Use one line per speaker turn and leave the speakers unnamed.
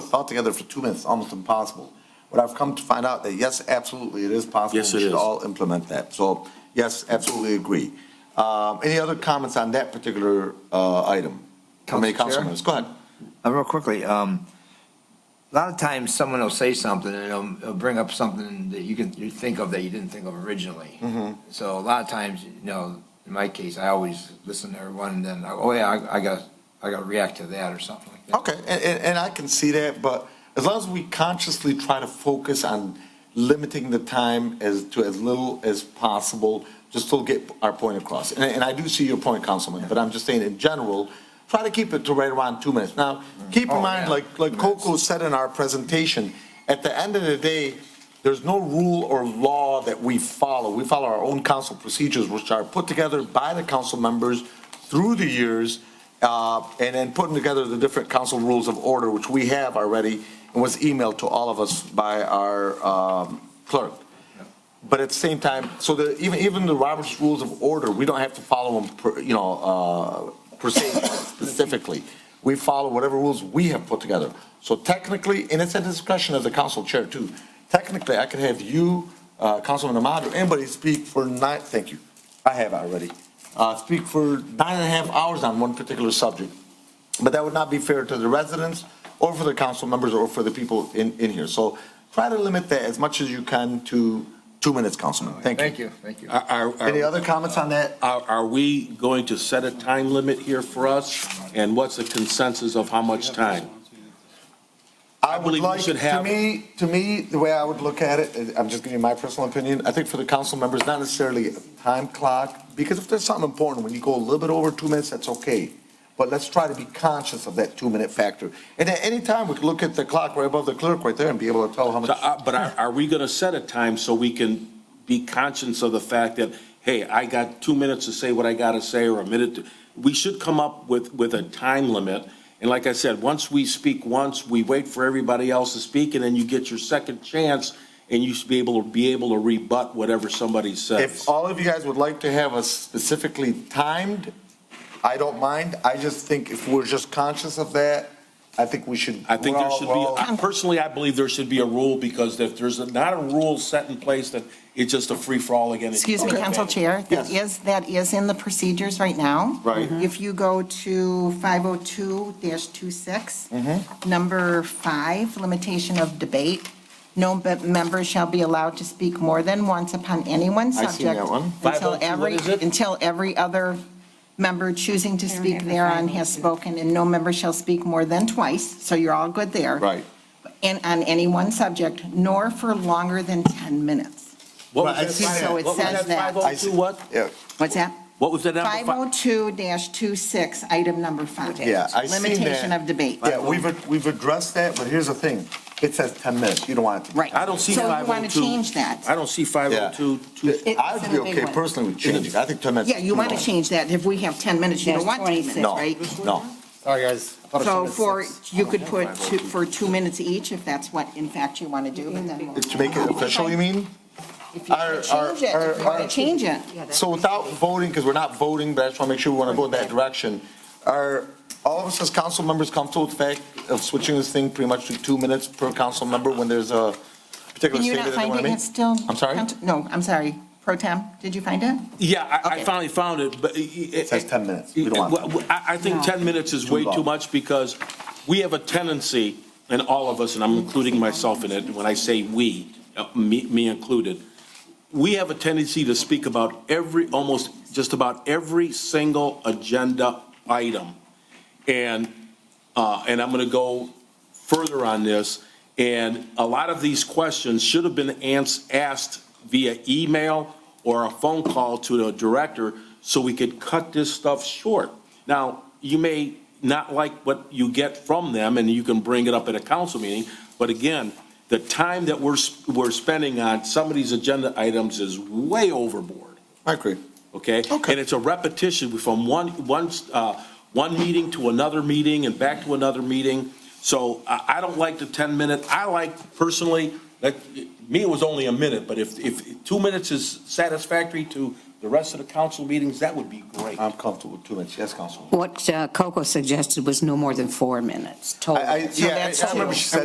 thought together for two minutes, almost impossible. But I've come to find out that yes, absolutely, it is possible.
Yes, it
We should
is.
all implement that. So yes, absolutely agree. Um, Any other comments on that particular uh, item? How many council
Council Chair?
members? Go ahead.
Uh, Real quickly, um, a lot of times someone will say something and it'll, it'll bring up something that you can, you think of that you didn't think of originally.
Mm-hmm.
So a lot of times, you know, in my case, I always listen to everyone and then, oh yeah, I, I gotta, I gotta react to that or something like that.
Okay, and, and, and I can see that, but as long as we consciously try to focus on limiting the time as, to as little as possible, just to get our point across. And, and I do see your point, Councilman, but I'm just saying in general, try to keep it to right around two minutes. Now, keep in
Oh,
mind,
yeah.
like, like Coco said in our presentation, at the end of the day, there's no rule or law that we follow. We follow our own council procedures, which are put together by the council members through the years, uh, and then putting together the different council rules of order, which we have already, and was emailed to all of us by our um, clerk. But at the same time, so the, even, even the Robert's Rules of Order, we don't have to follow them, per- you know, uh, per se specifically. We follow whatever rules we have put together. So technically, and it's at the discretion of the council chair too, technically, I could have you, uh, Councilman Ahmad, or anybody speak for nine, thank you, I have already, uh, speak for nine and a half hours on one particular subject. But that would not be fair to the residents or for the council members or for the people in, in here. So try to limit that as much as you can to two minutes, Councilman. Thank
Thank
you.
you, thank you.
Are- are- are-
Any other comments on that?
Are, are we going to set a time limit here for us? And what's the consensus of how much time?
I would
believe we
like,
should
to
have-
me, to me, the way I would look at it, and I'm just giving you my personal opinion, I think for the council members, not necessarily a time clock, because if there's something important, when you go a little bit over two minutes, that's okay. But let's try to be conscious of that two-minute factor. And at any time, we could look at the clock right above the clerk right there and be able to tell how
So,
much.
uh, But are, are we going to set a time so we can be conscious of the fact that, hey, I got two minutes to say what I got to say or a minute? to- We should come up with, with a time limit. And like I said, once we speak once, we wait for everybody else to speak and then you get your second chance and you should be able to, be able to rebut whatever somebody says.
If all of you guys would like to have us specifically timed, I don't mind. I just think if we're just conscious of that, I think we should.
I think
we're
there
all-
should
we're
be,
all-
I- personally, I believe there should be a rule, because if there's not a rule set in place, then it's just a free-for-all again.
Excuse me, Council Chair, that is, that is in the procedures right now.
Right.
Mm-hmm.
Mhm.
If you go to
Mm-hmm.
502-26, number five, limitation of debate, no be- member shall be allowed to speak more than once upon any one
seen
subject.
that one.
Until
502, what
every,
is it?
until every other member choosing to
don't
speak
have the
thereon has
502.
spoken, and no member shall speak more than twice, so you're all good there.
Right.
And on any one subject, nor for longer than 10 minutes.
What
Right, I
was
see
that? oh
So
it
What was
says that. oh-
502 what?
Yeah,
What's that?
What was that number? Fi-
502-26, item number five.
Yeah, I seen that.
Limitation of debate.
yeah, we've, we've addressed that, but here's the thing. It says 10 minutes. You don't want it. to-
Right.
I don't see
So you want
502.
to change that?
I don't see 502. two-
It's
I'd
in
be
a big
okay
one.
personally with changing. it. I think 10 minutes.
Yeah, you want to change that. If we have 10 minutes, you don't
There's
want 10 minutes,
26.
right?
No,
Sorry, guys.
So for, you could put two, for two minutes each, if that's what in fact you want to do, but then we'll.
to make it official, you mean?
If you
Our-
want to change it,
our-
if you want
our-
to change it.
So without voting, because we're not voting, but I just want to make sure we want to go in that direction, are all of us as council members comfortable with the fact of switching this thing pretty much to two minutes per council member when there's a particular
Can you not
statement that they
find
want
it
to make?
yet still?
I'm sorry?
No, I'm sorry. Pro Tem, did you find it?
Yeah, I, I
Okay.
finally found it, but. It
says 10 minutes. We don't want
Well, well, I, I think 10 minutes is
Too
way too
long.
much because we have a tendency, and all of us, and I'm including myself in it, when I say we, uh, me, me included, we have a tendency to speak about every, almost just about every single agenda item. And, uh, and I'm going to go further on this. And a lot of these questions should have been ans- asked via email or a phone call to the director so we could cut this stuff short. Now, you may not like what you get from them and you can bring it up at a council meeting, but again, the time that we're, s- we're spending on some of these agenda items is way overboard
I agree.
okay?
Okay.
And it's a repetition from one, one, uh, one meeting to another meeting and back to another meeting. So I, I don't like the 10-minute, I like personally, that, me, it was only a minute, but if, if two minutes is satisfactory to the rest of the council meetings, that would be great.
I'm comfortable with two minutes. Yes, Councilman.
What uh, Coco suggested was no more than four minutes total.
I, I, yeah, I- I remember she said